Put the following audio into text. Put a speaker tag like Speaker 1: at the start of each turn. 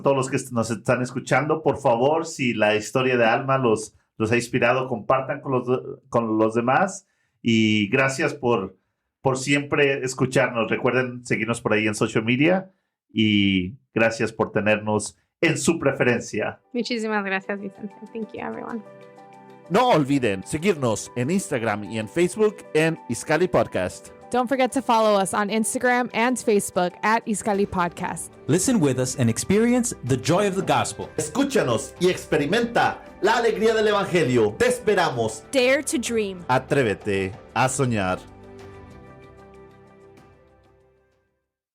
Speaker 1: todos los que nos están escuchando, por favor, si la historia de Alma los, los ha inspirado, compartan con los, con los demás y gracias por, por siempre escucharnos. Recuerden seguirnos por ahí en social media y gracias por tenernos en su preferencia.
Speaker 2: Muchísimas gracias, Vicente. Thank you, everyone.
Speaker 1: No olviden seguirnos en Instagram y en Facebook en Iscali Podcast.
Speaker 3: Don't forget to follow us on Instagram and Facebook at Iscali Podcast.
Speaker 4: Listen with us and experience the joy of the gospel.
Speaker 1: Escúchanos y experimenta la alegría del Evangelio. Te esperamos.
Speaker 5: Dare to dream.
Speaker 1: Atrévete a soñar.